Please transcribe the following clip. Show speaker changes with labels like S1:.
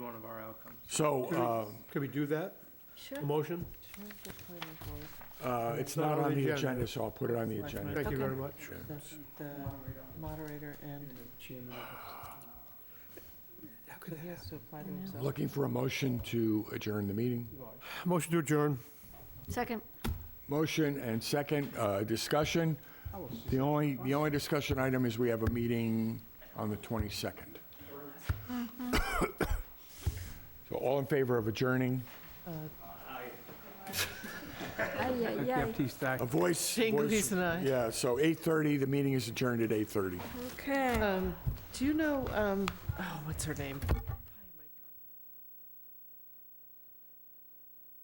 S1: outcomes.
S2: So uh,
S3: Could we do that?
S4: Sure.
S3: A motion?
S4: Sure, the planning board.
S2: uh, it's not on the agenda, so I'll put it on the agenda.
S3: Thank you
S4: Okay.
S3: very much.
S4: The the moderator and. How could He has to apply to himself.
S2: Looking for a motion to adjourn the meeting.
S3: Motion to adjourn.
S5: Second.
S2: Motion and second, uh, discussion. The only, the only discussion item is we have a meeting on the 22nd. So all in favor of adjourning?
S5: Ay, ay, ay.
S1: Baptiste, aye.
S2: A voice.
S4: Jingle
S2: voice-
S4: keys and I.
S2: Yeah, so 8:30, the meeting is adjourned at 8:30.
S5: Okay.
S4: Um, do you know, um, oh, what's her name?